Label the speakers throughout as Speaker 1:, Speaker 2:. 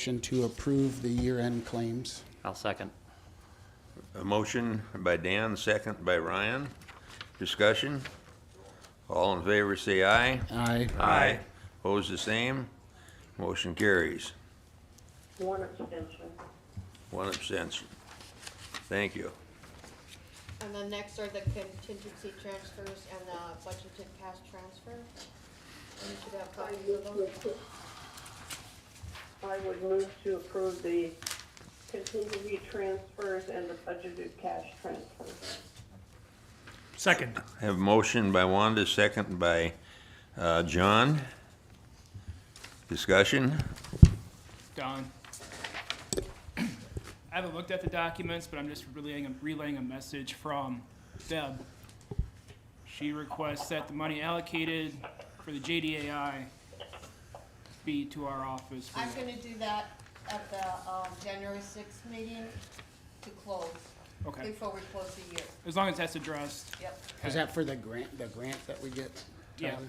Speaker 1: Motion to approve the year-end claims.
Speaker 2: I'll second.
Speaker 3: A motion by Dan, second by Ryan. Discussion? All in favor, say aye.
Speaker 1: Aye.
Speaker 3: Aye. Opposed, the same. Motion carries.
Speaker 4: One abstention.
Speaker 3: One abstention. Thank you.
Speaker 5: And then next are the contingency transfers and the budgeted cash transfer. You should have
Speaker 4: I
Speaker 5: copies of
Speaker 4: would
Speaker 5: those.
Speaker 4: move to- I would move to approve the contingency transfers and the budgeted cash transfers.
Speaker 6: Second.
Speaker 3: I Have a motion by Wanda, second by uh, John. Discussion?
Speaker 6: Don. I haven't looked at the documents, but I'm just relaying, a- relaying a message from Deb. She requests that the money allocated for the JDAI be to our office. for-
Speaker 5: I'm gonna do that at the, um, January sixth meeting to close,
Speaker 6: Okay,
Speaker 5: before we close the year.
Speaker 6: as long as that's addressed.
Speaker 5: Yep.
Speaker 1: Is that for the grant, the grant that we get?
Speaker 6: Yeah.
Speaker 1: Tyler?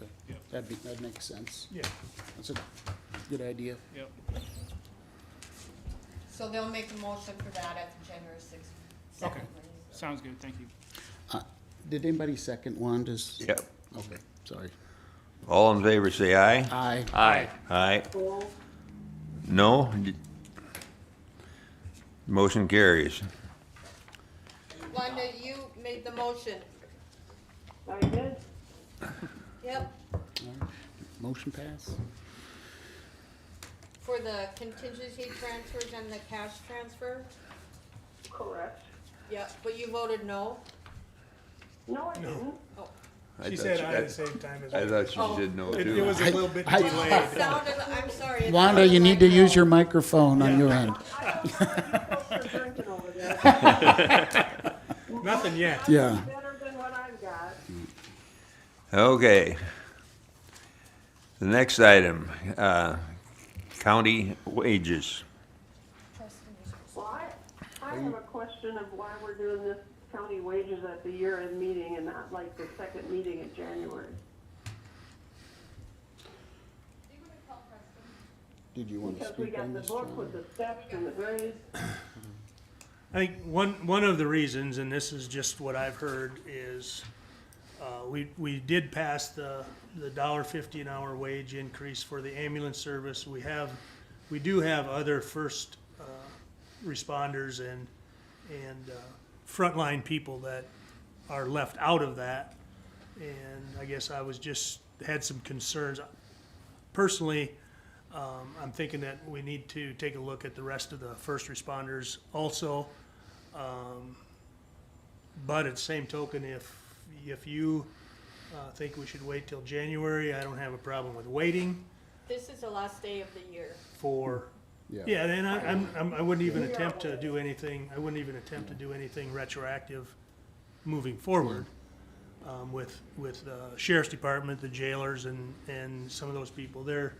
Speaker 1: Okay.
Speaker 6: Yep.
Speaker 1: That'd be, that makes sense.
Speaker 6: Yeah.
Speaker 1: That's a good idea.
Speaker 6: Yep.
Speaker 5: So they'll make a motion for that at the January sixth.
Speaker 6: Okay. Sounds good, thank you.
Speaker 1: Did anybody second Wanda's?
Speaker 3: Yep.
Speaker 1: Okay, sorry.
Speaker 3: All in favor, say aye.
Speaker 1: Aye.
Speaker 2: Aye.
Speaker 3: Aye.
Speaker 4: All
Speaker 3: No? Motion carries.
Speaker 5: Wanda, you made the motion.
Speaker 4: I did.
Speaker 5: Yep.
Speaker 1: Motion pass?
Speaker 5: For the contingency transfers and the cash transfer?
Speaker 4: Correct.
Speaker 5: Yep, but you voted no?
Speaker 4: No, I didn't.
Speaker 3: I
Speaker 7: She
Speaker 3: thought
Speaker 7: said
Speaker 3: you-
Speaker 7: I at the same time as
Speaker 3: I
Speaker 7: well.
Speaker 3: thought she did no
Speaker 7: It,
Speaker 3: too.
Speaker 7: it was a little bit
Speaker 1: I-
Speaker 7: delayed.
Speaker 5: Sounded, I'm sorry. it
Speaker 1: Wanda,
Speaker 5: sounded
Speaker 1: you need
Speaker 5: like
Speaker 1: to use
Speaker 5: no.
Speaker 1: your microphone on your end.
Speaker 4: I don't know what you're drinking over there.
Speaker 7: Nothing yet.
Speaker 1: Yeah.
Speaker 4: Better than what I've got.
Speaker 3: Okay. The next item, uh, county wages.
Speaker 4: Well, I, I have a question of why we're doing this county wages at the year-end meeting and not like the second meeting in January.
Speaker 1: Did you want to
Speaker 4: Because we
Speaker 1: speak
Speaker 4: got
Speaker 1: on
Speaker 4: the
Speaker 1: this?
Speaker 4: book with the steps and the grades.
Speaker 7: I think one, one of the reasons, and this is just what I've heard, is uh, we, we did pass the, the dollar fifty an hour wage increase for the ambulance service. We have, we do have other first uh, responders and, and uh, frontline people that are left out of that. And I guess I was just, had some concerns. Personally, um, I'm thinking that we need to take a look at the rest of the first responders also. Um, But at the same token, if, if you uh, think we should wait till January, I don't have a problem with waiting
Speaker 5: This is the last day of the year.
Speaker 7: for,
Speaker 1: Yeah.
Speaker 7: yeah, and I, I'm, I'm- I wouldn't even attempt to do anything, I wouldn't even attempt to do anything retroactive moving forward um, with, with the sheriff's department, the jailers and, and some of those people. They're,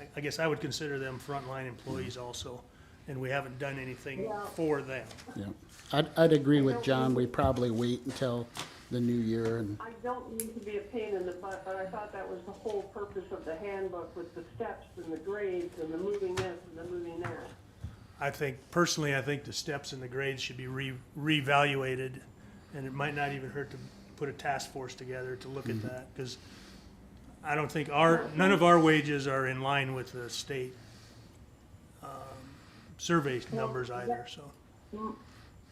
Speaker 7: I, I guess I would consider them frontline employees also, and we haven't done anything for them.
Speaker 1: Yeah. I'd, I'd agree with John. We probably wait until the new year and,
Speaker 4: I don't mean to be a pain in the butt, but I thought that was the whole purpose of the handbook with the steps and the grades and the moving this and the moving that.
Speaker 7: I think, personally, I think the steps and the grades should be re, reevaluated, and it might not even hurt to put a task force together to look at that, because I don't think our, none of our wages are in line with the state, um, survey numbers either, so.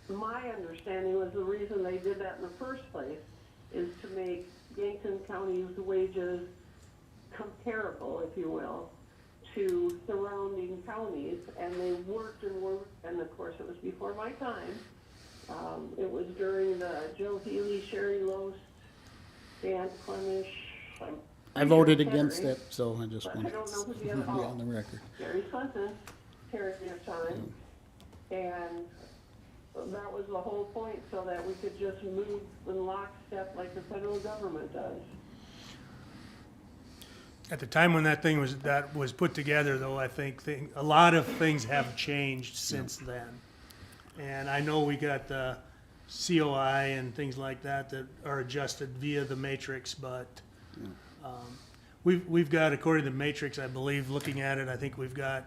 Speaker 4: My understanding was the reason they did that in the first place is to make Yankton County's wages comparable, if you will, to surrounding counties, and they worked and worked, and of course, it was before my time. Um, it was during the Joe Healy, Sherry Loest, Dan Clemish. I'm-
Speaker 1: I voted against
Speaker 4: Henry.
Speaker 1: it, so I just
Speaker 4: But I
Speaker 1: wanted
Speaker 4: don't know who
Speaker 1: to
Speaker 4: the
Speaker 1: be
Speaker 4: other-
Speaker 1: on the record.
Speaker 4: Gary Clinton period of time. And that was the whole point, so that we could just move in lockstep like the federal government does.
Speaker 7: At the time when that thing was, that was put together, though, I think thing, a lot of things have changed since then. And I know we got the COI and things like that that are adjusted via the matrix, but, um, we've, we've got, according to the matrix, I believe, looking at it, I think we've got